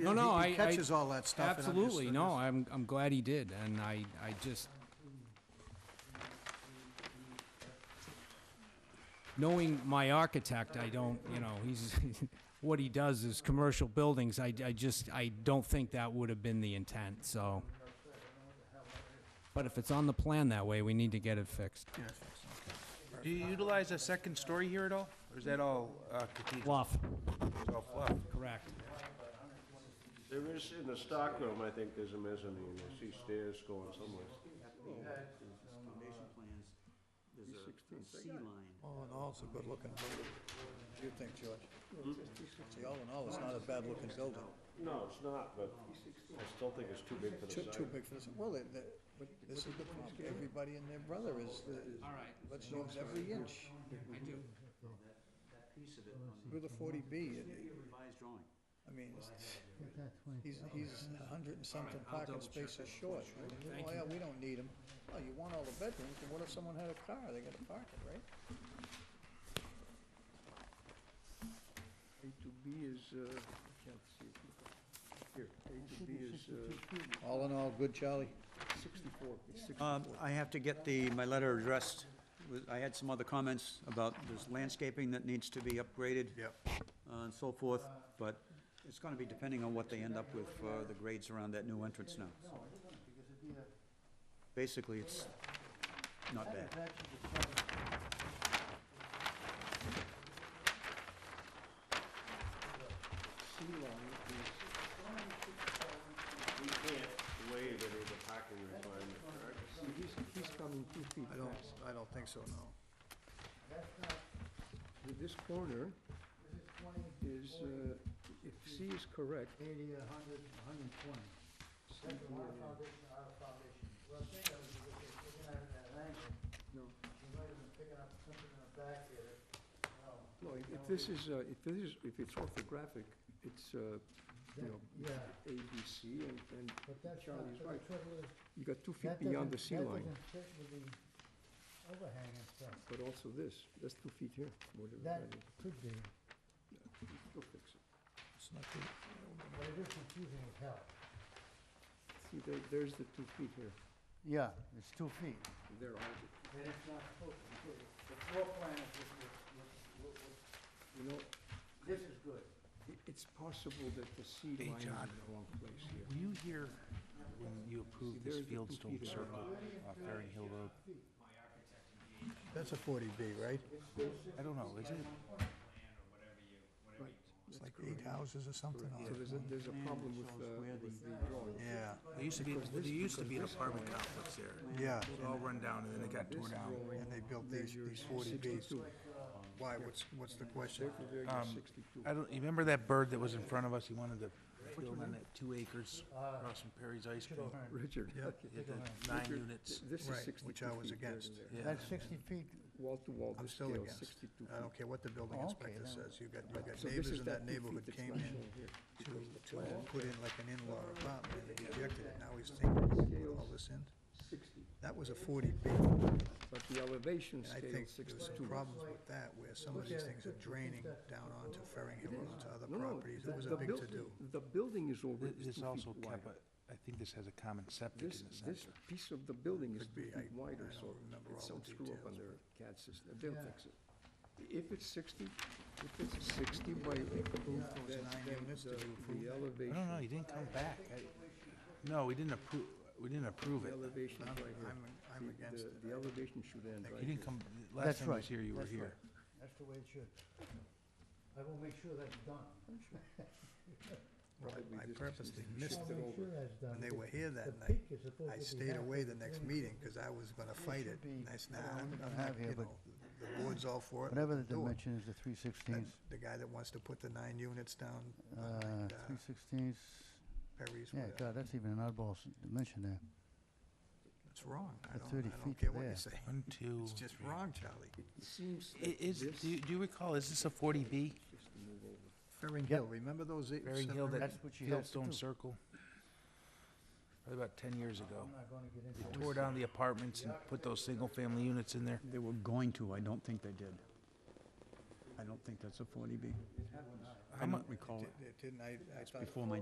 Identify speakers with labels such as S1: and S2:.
S1: No, no,
S2: He-
S1: I.
S2: he
S1: I-
S2: catches all that stuff and I'm just-
S1: Absolutely,
S2: I
S1: no,
S2: just-
S1: I'm, I'm glad he did, and I, I just... Knowing my architect, I don't, you know, he's, what he does is commercial buildings, I, I just, I don't think that would have been the intent, so... But if it's on the plan that way, we need to get it fixed.
S3: Do you utilize a second story here at all? Or is that all uh, cathedral?
S1: Bluff,
S3: It's all fluff?
S1: correct.
S4: There is, in the stockroom, I think there's a mezzanine, I see stairs going somewhere.
S5: foundation plans, there's a a sea line.
S2: All in all, it's a good-looking building. What do you think, George? See, all in all, it's not a bad-looking building.
S4: No, it's not, but I still think it's too big for
S2: Too,
S4: the
S2: too
S4: sign.
S2: big for this, well, it- that- but this is the problem, everybody and their brother is, the-
S1: All right,
S2: let's use every inch.
S1: I do.
S5: That piece of it on
S2: Through the forty B,
S5: the revised drawing.
S2: I mean, it's- he's, he's a hundred and something parking spaces short. I mean, Oh, yeah, we don't need them. Oh, you want all the bedrooms, and what if someone had a car, they gotta park it, right?
S6: A to B is, uh, I can't see it. Here, A to B is uh,
S2: All in all, good, Charlie?
S6: 64, It's six-
S5: Um, I have to get the, my letter addressed. Wa- I had some other comments about this landscaping that needs to be upgraded. uh, And so forth, but it's gonna be depending on what they end up with for the grades around that new entrance now. Basically, it's not bad.
S4: We can't waive any of the parking requirement, correct?
S6: he's, he's coming two feet
S2: I don't,
S6: fast.
S2: I don't think so, no.
S6: With This corner is, uh, if C is correct. 80, 100, 120. No. No, if- if this is, uh, if this is, if it's orthographic, it's, uh, you know, A, B, C, and, and
S7: But that's not,
S6: Charlie's
S7: but
S6: right.
S7: the trouble is,
S6: You got two
S7: that
S6: feet beyond
S7: doesn't,
S6: the
S7: that
S6: sea line,
S7: doesn't fit with the overhang and stuff.
S6: but also this, that's two feet here, whatever
S7: That
S6: that is.
S7: could be,
S6: You'll fix it.
S2: It's not good.
S7: but it is confusing as hell.
S6: See, there, there's the two feet here,
S7: Yeah, it's two feet.
S6: and there are the,
S7: And it's not supposed to be. The floor plan is,
S6: you know,
S7: this is good.
S6: i- it's possible that the sea line is in the wrong place here.
S8: Were you here when you approved this
S6: there's the
S8: Fieldstone
S6: computer.
S8: Circle off Ferry Hill Road?
S2: That's a forty B, right?
S8: I don't know, is it?
S2: It's like eight houses or something
S6: So there's a, there's a problem with, uh, with the drawing.
S2: Yeah,
S8: There used to be, there used to be an apartment complex there.
S2: yeah,
S8: It all run down and then it got torn down.
S2: and they built these, these forty Bs. Why, what's, what's the question?
S6: Therefore, there you're
S8: Um,
S6: sixty-two.
S8: I don't, you remember that bird that was in front of us? He wanted to build on that two acres across from Perry's Ice Cream.
S6: Richard,
S8: He had the nine units.
S6: th- this is
S2: Right,
S6: sixty-two feet
S2: which I was
S6: there and
S2: against.
S6: there.
S8: Yeah.
S7: That's sixty feet.
S6: Wall to wall,
S2: I'm
S6: this
S2: still
S6: scale,
S2: against.
S6: sixty-two
S2: I
S6: feet.
S2: don't care what the building
S7: Oh,
S2: inspector
S7: okay, then.
S2: says, you've got,
S6: But-
S2: you've got
S6: so this
S2: neighbors
S6: is
S2: in
S6: that
S2: that
S6: two feet
S2: neighborhood
S6: that's
S2: came
S6: not
S2: in
S6: shown here.
S2: to, to put in like an in-law apartment, and they rejected it, now he's thinking, put all this in?
S6: Sixty,
S2: That was a forty B, and
S6: but the elevation
S2: I
S6: scale,
S2: think
S6: is
S2: there was
S6: sixty-two.
S2: some problems with that, where some of these things are draining down onto Ferring Hill and onto other properties,
S6: the-
S2: it was
S6: the
S2: a big
S6: buil-
S2: to-do.
S6: The building is over,
S8: Th-
S6: is
S8: This
S6: two feet
S8: also
S6: wide.
S8: kept a, I think this has a common septic
S6: This,
S8: in the
S6: this
S8: center.
S6: piece of the building is
S2: Could
S6: two
S2: be. I-
S6: feet wider,
S2: I
S6: so
S2: don't remember
S6: it's
S2: all
S6: some
S2: the
S6: screw up on
S2: details,
S6: their CAD system, they'll fix it. If it's sixty, if it's sixty by,
S2: Those
S6: then,
S2: nine
S6: then
S2: units,
S6: the,
S2: did you approve
S6: the
S2: that?
S8: I
S6: elevation,
S8: don't know, he didn't come back. I- No, we didn't approve, we didn't approve
S6: the
S8: it.
S6: elevation right here.
S2: I'm, I'm
S6: The-
S2: against
S6: the-
S2: it.
S6: The elevation should end right
S8: You
S6: here.
S8: didn't come,
S7: That's
S8: last time I
S7: right,
S8: was here, you were
S7: that's right.
S8: here.
S7: That's the way it should. I will make sure that's done.
S2: Well,
S6: Right, we
S2: I
S6: just-
S2: purposely
S6: just
S2: missed
S6: shift
S2: it.
S7: Make
S6: over.
S7: sure that's done.
S2: When they were here
S7: The
S2: that night,
S7: peak is supposed
S2: I
S7: to be
S2: stayed away the
S7: halfway
S2: next
S7: through.
S2: meeting, because I was gonna fight it.
S7: should be-
S2: And I said,
S7: I don't
S2: nah, I'm
S7: think
S2: I'm
S7: I
S2: not,
S7: have here,
S2: you know,
S7: but-
S2: the the board's all for it.
S7: Whatever the
S2: do it."
S7: dimension is, the three
S2: That-
S7: sixteenths,
S2: The guy that wants to put the nine units down,
S7: uh,
S2: behind, uh,
S7: three sixteenths,
S2: Perry's,
S7: yeah, uh,
S2: whatever,
S7: God, that's even an oddball s- dimension there.
S2: it's wrong. I
S7: That's
S2: don't,
S7: 30
S2: I
S7: feet
S2: don't care what you
S7: there.
S2: say.
S8: One, two.
S2: It's just
S8: three.
S2: wrong, Charlie.
S6: It seems
S8: I-
S6: that
S8: Is,
S6: this,
S8: do you- do you recall, is this a 40B?
S6: just to move over.
S2: Ferring Hill, remember those eight?
S8: Ferring
S2: seven
S8: Hill that
S7: That's what you have to
S8: Fieldstone
S7: do.
S8: Circle? Probably about 10 years ago.
S7: I'm not gonna get
S8: They
S7: into
S8: tore down the apartments and put those single-family units in there.
S5: They were going to, I don't think they did. I don't think that's a forty B. I don't recall it.
S2: It didn't, I, I thought.
S5: Oh. Before my